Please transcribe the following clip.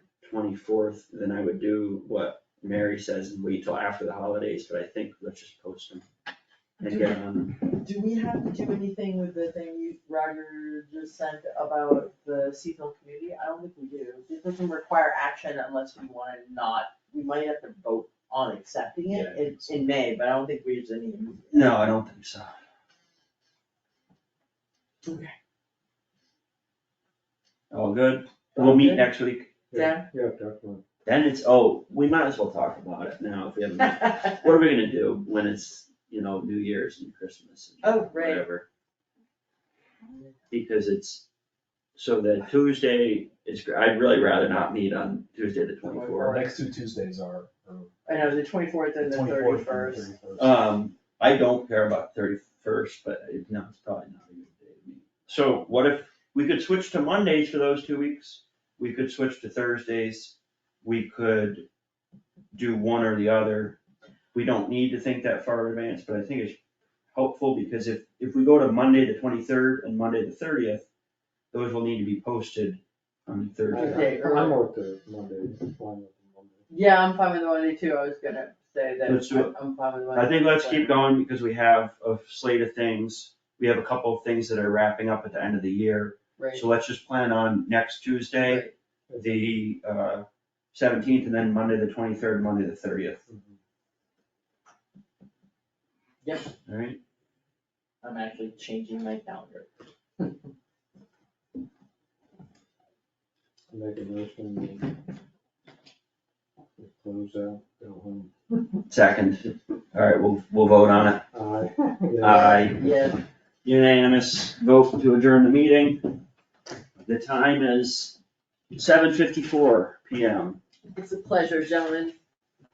twenty-fourth, then I would do what Mary says and wait till after the holidays, but I think let's just post them. And get them, Do we have to do anything with the thing you, Roger just sent about the Seafill community? I don't think we do. It doesn't require action unless we wanna not, we might have to vote on accepting Yeah, I it in, think in May, but I don't think we just need. to- no, I don't think so. Okay. All good, we'll meet Okay. next week, Yeah. Yeah, definitely. then it's, oh, we might as well talk about it now if we haven't. What are we gonna do when it's, you know, New Year's and Christmas and Oh, right. whatever? Because it's, so the Tuesday is, gr- I'd really rather not meet on Tuesday the Our twenty-fourth. next two Tuesdays are, are I know, the twenty-fourth and the twenty-fourth and thirty-first. thirty-first. Um, I don't care about thirty-first, but it- no, it's probably not a good day to meet. So what if, we could switch to Mondays for those two weeks, we could switch to Thursdays, we could do one or the other. We don't need to think that far in advance, but I think it's helpful because if, if we go to Monday the twenty-third and Monday the thirtieth, those will need to be posted on Thursday. Okay. I'm with the Monday, I'm with the Monday. Yeah, I'm fine with the Monday too, I was gonna say that, Let's do it. I'm fine with the Monday. I think let's keep going because we have a slate of things, we have a couple of things that are wrapping up at the end of the year. Right. So let's just plan on next Tuesday, Right. the uh, seventeenth, and then Monday the twenty-third, Monday the thirtieth, Mhm. all right? I'm actually changing my calendar. Make a motion. we Close out, go home. Second, all right, we'll, we'll vote on it. Aye. Aye. Yeah, Unanimous vote to adjourn the meeting. The time is seven fifty-four PM. it's a pleasure, gentlemen,